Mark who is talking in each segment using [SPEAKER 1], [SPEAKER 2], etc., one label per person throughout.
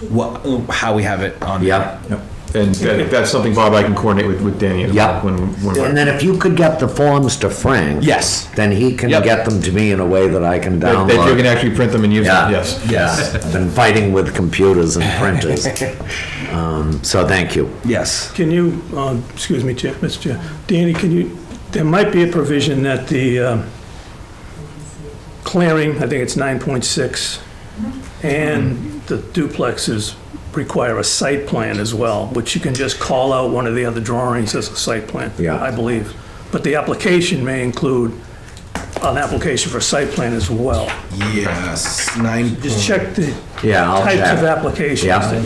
[SPEAKER 1] what, how we have it on.
[SPEAKER 2] Yep.
[SPEAKER 3] Yep. And that- that's something, Bob, I can coordinate with, with Danny. as well
[SPEAKER 2] Yep.
[SPEAKER 3] When, when.
[SPEAKER 2] And then if you could get the forms to Frank.
[SPEAKER 1] Yes.
[SPEAKER 2] Then he can
[SPEAKER 1] Yep.
[SPEAKER 2] get them to me in a way that I can
[SPEAKER 3] That that you
[SPEAKER 2] download.
[SPEAKER 3] can actually print them and use
[SPEAKER 2] Yeah.
[SPEAKER 3] them, yes.
[SPEAKER 1] Yes.
[SPEAKER 2] I've been fighting with computers and printers. Um, So thank you.
[SPEAKER 1] Yes.
[SPEAKER 4] Can you, uh, excuse me, Chair, Mr. Chair, Danny, can you, there might be a provision that the um, clearing, I think it's 9.6, and the duplexes require a site plan as well, which you can just call out one of the other drawings as a site plan.
[SPEAKER 2] Yeah.
[SPEAKER 4] I believe. But the application may include an application for a site plan as well.
[SPEAKER 1] Yes. Nine.
[SPEAKER 4] Just check the
[SPEAKER 2] Yeah, I'll
[SPEAKER 4] types of
[SPEAKER 2] check.
[SPEAKER 4] applications.
[SPEAKER 2] Yeah.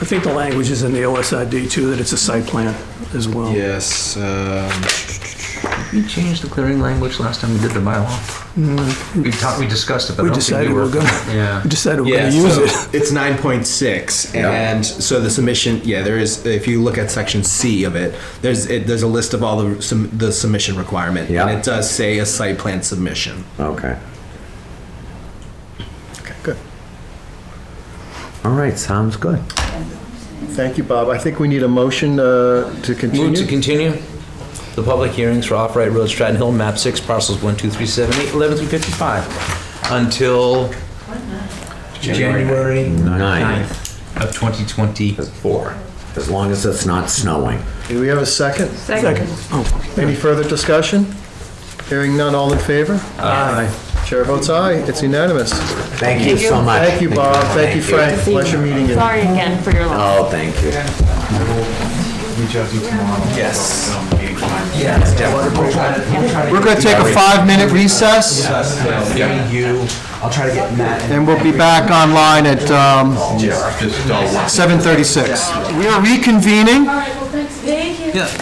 [SPEAKER 4] I think the language is in the OSID too, that it's a site plan as well.
[SPEAKER 1] Yes. um,
[SPEAKER 5] We changed the clearing language last time we did the bylaw. We talked, we discussed it, but
[SPEAKER 4] We
[SPEAKER 5] I don't think
[SPEAKER 4] decided
[SPEAKER 5] we
[SPEAKER 4] we're
[SPEAKER 5] were.
[SPEAKER 4] gonna,
[SPEAKER 5] Yeah.
[SPEAKER 4] we decided we're
[SPEAKER 1] yeah,
[SPEAKER 4] gonna use
[SPEAKER 1] so
[SPEAKER 4] it.
[SPEAKER 1] it's 9.6 and so the submission yeah there is if you look at section C of it there's it, there's a list of all the sum, the submission requirement
[SPEAKER 2] Yeah.
[SPEAKER 1] and it does say a site plan submission
[SPEAKER 2] Okay.
[SPEAKER 6] Okay, good.
[SPEAKER 2] All right, sounds good.
[SPEAKER 6] Thank you, Bob. I think we need a motion uh, to
[SPEAKER 7] Move to
[SPEAKER 6] continue.
[SPEAKER 7] continue the public hearings for Off-Right Road, Stratton Hill, map 6, parcels 1, 2, 3, 7, 8, 11 through 55, until January
[SPEAKER 2] Ninth.
[SPEAKER 7] 9th of 2024.
[SPEAKER 2] As long as it's not snowing.
[SPEAKER 6] Do we have a second?
[SPEAKER 8] Second.
[SPEAKER 6] Any further discussion? Hearing none, all in favor? Aye. Chair votes aye, it's unanimous.
[SPEAKER 2] Thank you so much.
[SPEAKER 6] Thank you, Bob. Thank you, Frank. Pleasure meeting you.
[SPEAKER 8] Sorry again for your loss.
[SPEAKER 2] Oh, thank you.
[SPEAKER 6] We're going to take a five-minute recess. And we'll be back online at um, 7:36. We are reconvening.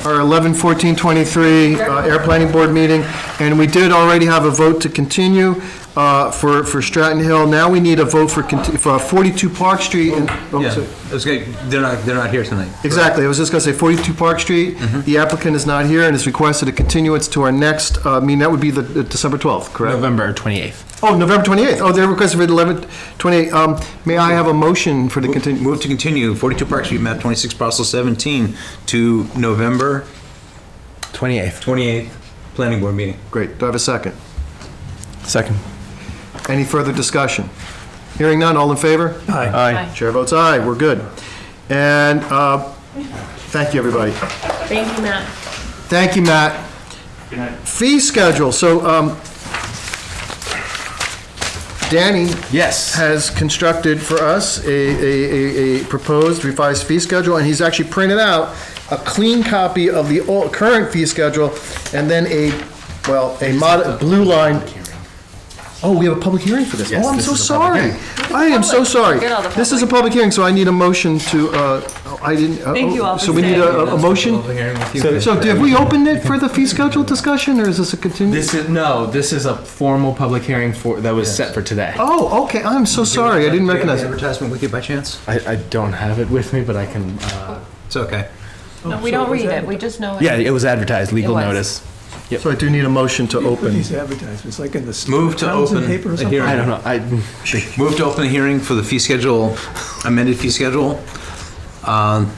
[SPEAKER 6] Our 11/14/23 uh, Air Planning Board meeting, and we did already have a vote to continue uh, for for Stratton Hill. Now we need a vote for conti- for 42 Park Street. and- oh,
[SPEAKER 7] Yeah,
[SPEAKER 6] sorry.
[SPEAKER 7] it's good. They're not, they're not here tonight.
[SPEAKER 6] Exactly, I was just going to say 42 Park Street. The applicant is not here and has requested a continuance to our next, uh, I mean, that would be the the December 12th, correct?
[SPEAKER 1] November 28th
[SPEAKER 6] Oh, November 28th. Oh, they're requesting for the 11th, 28th. Um, May I have a motion for the continu,
[SPEAKER 5] Move to continue, 42 Park Street, map 26, parcel 17, to November
[SPEAKER 1] 28th
[SPEAKER 5] 28th, planning board meeting.
[SPEAKER 6] great, do I have a second?
[SPEAKER 1] second
[SPEAKER 6] Any further discussion? Hearing none, all in favor?
[SPEAKER 4] Aye.
[SPEAKER 6] Aye. Chair votes aye, we're good. And uh, thank you, everybody.
[SPEAKER 9] Oh.
[SPEAKER 8] Thank you, Matt.
[SPEAKER 6] Thank you, Matt. Fee schedule, so um, Danny
[SPEAKER 1] yes
[SPEAKER 6] has constructed for us a, a, a- a proposed revised fee schedule, and he's actually printed out a clean copy of the old, current fee schedule, and then a, well, a mod, blue line. Oh, we have a public hearing for this? Oh, I'm so sorry. I am so sorry.
[SPEAKER 8] Forget all the
[SPEAKER 6] This is a public hearing, so I need a motion to, uh, oh, I didn't. oh,
[SPEAKER 8] Thank you all
[SPEAKER 6] So
[SPEAKER 8] for
[SPEAKER 6] we need
[SPEAKER 8] staying.
[SPEAKER 6] a, a motion?
[SPEAKER 7] Over here with you.
[SPEAKER 6] So, so have we opened it for the fee schedule discussion, or is this a continued?
[SPEAKER 9] This is no. This is a formal public hearing for that was set for today.
[SPEAKER 6] Oh, okay, I'm so sorry, I
[SPEAKER 5] Do you
[SPEAKER 6] didn't
[SPEAKER 5] have
[SPEAKER 6] recognize
[SPEAKER 5] the
[SPEAKER 6] it.
[SPEAKER 5] Advertisement with you by chance?
[SPEAKER 9] I, I don't have it with me, but I can. Uh,
[SPEAKER 5] It's okay.
[SPEAKER 8] No, we don't read it, we just know it.
[SPEAKER 9] yeah, it was advertised. Legal
[SPEAKER 8] was.
[SPEAKER 9] notice.
[SPEAKER 6] So I do need a motion to
[SPEAKER 4] Put
[SPEAKER 6] open.
[SPEAKER 4] these advertisements, like in the.
[SPEAKER 5] Move to
[SPEAKER 4] Towns and
[SPEAKER 5] open
[SPEAKER 4] paper or
[SPEAKER 5] the
[SPEAKER 4] something?
[SPEAKER 5] hearing.
[SPEAKER 9] I don't know. I
[SPEAKER 5] Move to open the hearing for the fee schedule, amended fee schedule. Um,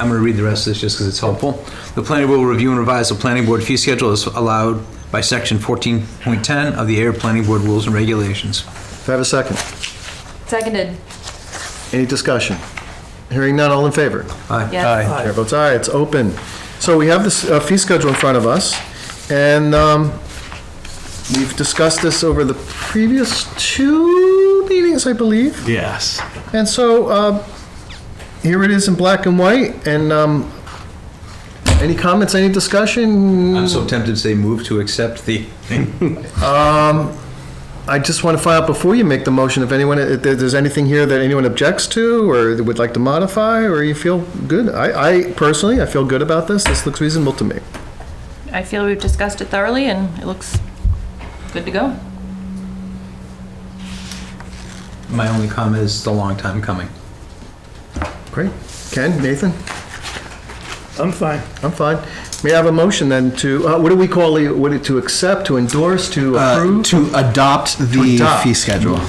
[SPEAKER 5] I'm going to read the rest of this just because it's helpful. The planning board will review and revise the planning board fee schedule as allowed by section 14.10 of the Air Planning Board Rules and Regulations.
[SPEAKER 6] Do I have a second?
[SPEAKER 8] Seconded,
[SPEAKER 6] Any discussion? Hearing none, all in favor?
[SPEAKER 8] yes.
[SPEAKER 6] Chair votes aye, it's open. So we have this uh, fee schedule in front of us, and um, we've discussed this over the previous two meetings, I believe.
[SPEAKER 9] yes.
[SPEAKER 6] And so uh, here it is in black and white, and um, any comments, any discussion?
[SPEAKER 5] I'm so tempted to say move to accept the
[SPEAKER 6] I just want to find out before you make the motion, if anyone, if there- there's anything here that anyone objects to, or would like to modify, or you feel good? I, I personally, I feel good about this, this looks reasonable to me.
[SPEAKER 8] I feel we've discussed it thoroughly and it looks good to go.
[SPEAKER 5] My only comment is it's a long time coming.
[SPEAKER 6] Great. Ken, Nathan,
[SPEAKER 4] I'm fine.
[SPEAKER 6] I'm fine. May I have a motion then to, uh, what do we call, it? what, it- to accept, to endorse, to approve?
[SPEAKER 1] to adopt the
[SPEAKER 6] adopt.
[SPEAKER 1] fee schedule